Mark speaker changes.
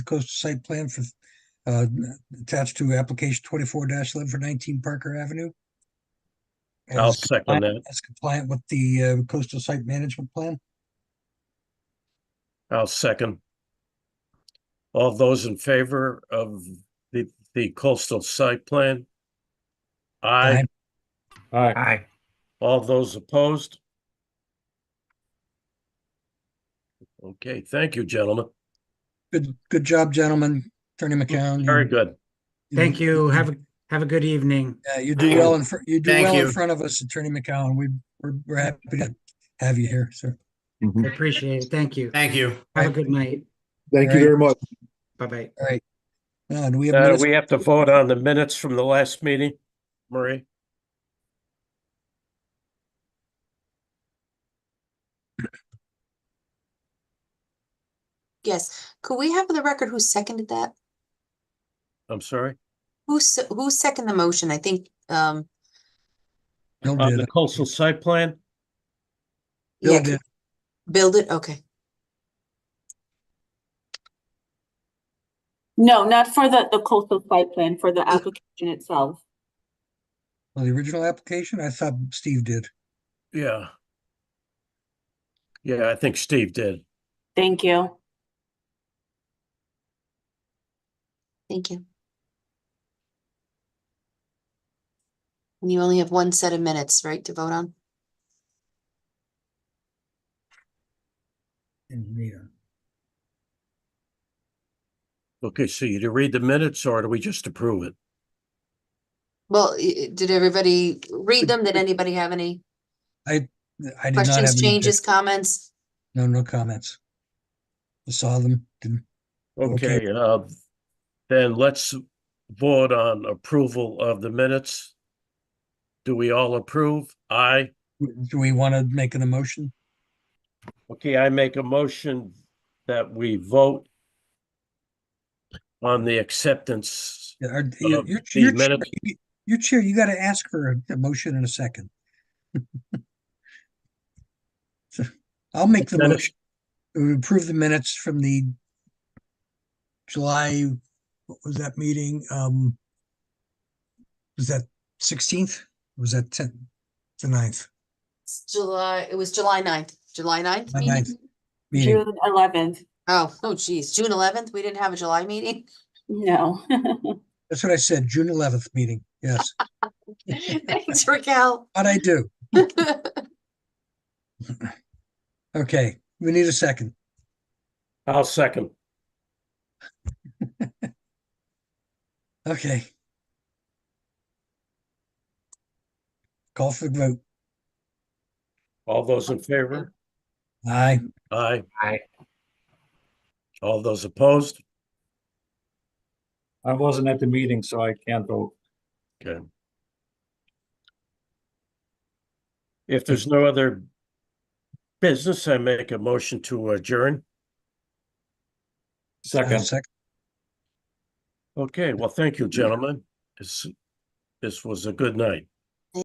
Speaker 1: coastal site plan for, uh, attached to application twenty-four eleven for nineteen Parker Avenue. And
Speaker 2: I'll
Speaker 1: is
Speaker 2: second
Speaker 1: compliant-
Speaker 2: that.
Speaker 1: Is compliant with the uh, coastal site management plan.
Speaker 2: I'll second. All those in favor of the, the coastal site plan? Aye.
Speaker 1: Aye.
Speaker 3: Aye.
Speaker 4: Aye.
Speaker 2: All those opposed? Okay, thank you, gentlemen.
Speaker 1: Good, good job, gentlemen. Attorney McCown.
Speaker 2: Very good.
Speaker 4: Thank you. Have, a have a good evening.
Speaker 1: Yeah, you do well in, fr- you do
Speaker 5: Thank
Speaker 1: well in
Speaker 5: you.
Speaker 1: front of us, Attorney McCown. We, we're, we're happy to have you here, sir.
Speaker 4: I appreciate it. Thank you.
Speaker 5: Thank you.
Speaker 4: Have a good night.
Speaker 3: Thank you
Speaker 1: Aye.
Speaker 3: very much.
Speaker 4: Bye-bye.
Speaker 1: All right. Now, do we have
Speaker 2: Uh,
Speaker 1: minutes?
Speaker 2: we have to vote on the minutes from the last meeting, Marie.
Speaker 6: Yes, could we have the record who seconded that?
Speaker 2: I'm sorry.
Speaker 6: Who, se- who seconded the motion? I think, um,
Speaker 1: Bill
Speaker 2: On
Speaker 1: did.
Speaker 2: the coastal site plan,
Speaker 1: Bill
Speaker 6: yeah,
Speaker 1: did.
Speaker 6: build it, okay.
Speaker 7: No, not for the, the coastal site plan, for the application itself.
Speaker 1: Well, the original application, I thought Steve did.
Speaker 2: yeah. Yeah, I think Steve did.
Speaker 7: Thank you.
Speaker 6: Thank you. And you only have one set of minutes, right, to vote on?
Speaker 2: Okay, so you do read the minutes or do we just approve it?
Speaker 6: Well, i- i- did everybody read them? Did anybody have any
Speaker 1: I did not have.
Speaker 6: questions,
Speaker 1: any-
Speaker 6: changes, comments?
Speaker 1: No, no comments. I Saw them, didn't, Okay.
Speaker 2: Okay, uh, then let's vote on approval of the minutes. Do we all approve? Aye.
Speaker 1: do we want to make an emotion?
Speaker 2: Okay, I make a motion that we vote on the acceptance.
Speaker 1: Yeah, are-
Speaker 2: Uh,
Speaker 1: you- You're
Speaker 2: the
Speaker 1: you're chair,
Speaker 2: minutes-
Speaker 1: you- you're chair, you got to ask for a- a motion in a second. So, I'll make the
Speaker 2: Minutes.
Speaker 1: motion. We approve the minutes from the July, what was that meeting? Um, was that sixteenth? Was that tenth? The ninth
Speaker 6: It's July, it was July ninth, July ninth?
Speaker 1: July
Speaker 6: meeting?
Speaker 1: 9th. meeting?
Speaker 7: June eleventh,
Speaker 6: Oh, oh geez, June eleventh, we didn't have a July meeting?
Speaker 7: no.
Speaker 1: That's what I said, June eleventh meeting. Yes,
Speaker 6: Thanks, Raquel.
Speaker 1: what I do. Okay, we need a second.
Speaker 2: I'll second.
Speaker 1: Okay. Call for the vote.
Speaker 2: All those in favor?
Speaker 1: Aye.
Speaker 2: Aye.
Speaker 4: Aye.
Speaker 2: All those opposed?
Speaker 3: I wasn't at the meeting, so I can't vote.
Speaker 2: Okay. If there's no other business, I make a motion to adjourn.
Speaker 1: I'll
Speaker 3: Second.
Speaker 1: sec-
Speaker 2: Okay, well, thank you, gentlemen. This, this was a good night.